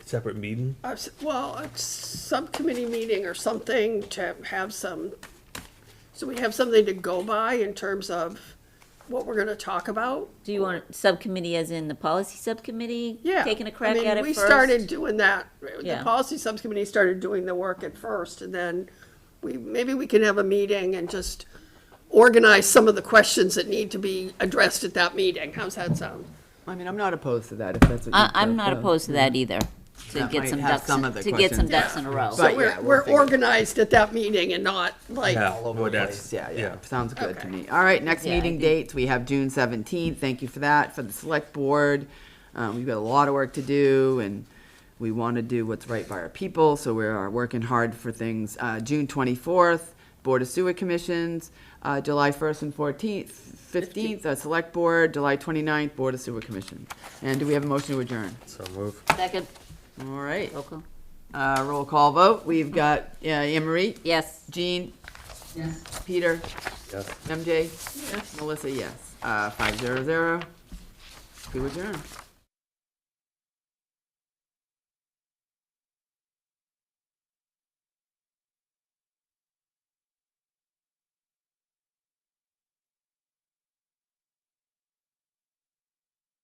separate meeting? I've s- Well, a subcommittee meeting or something to have some, so we have something to go by in terms of what we're gonna talk about. Do you want subcommittee as in the policy subcommittee? Yeah. Taking a I crack mean, at it We first? started doing that, the Yeah. policy subcommittee started doing the work at first, and then we, maybe we can have a meeting and just organize some of the questions that need to be addressed at that meeting. How's that sound? I mean, I'm not opposed to that, if that's what you. I, I'm not prefer. opposed to that either, to That get might some have ducks, some in- of the to get some questions. ducks in a row. But- So we're, yeah, we'll we're figure it. organized at that meeting and not like, Yeah, All well, over the that's- place, yeah, yeah, yeah. sounds good Okay. to me. All right, next Yeah, I meeting think- dates, we have June seventeenth, thank you for that, for the select board. Um, we've got a lot of work to do, and we want to do what's right by our people, so we are working hard for things. Uh, June twenty-fourth, Board of Sewer Commissions, uh, July first and fourteenth, fifteenth, uh, Select Board, July 29th, Board of Sewer Commission. And do we have a motion to adjourn? So move. Second, All right, roll call. uh, roll call vote, we've got, uh, Anne Marie, Yes. Jean? Yes. Peter? Yes. MJ? Yes. Melissa, yes. Uh, five zero zero. We adjourn.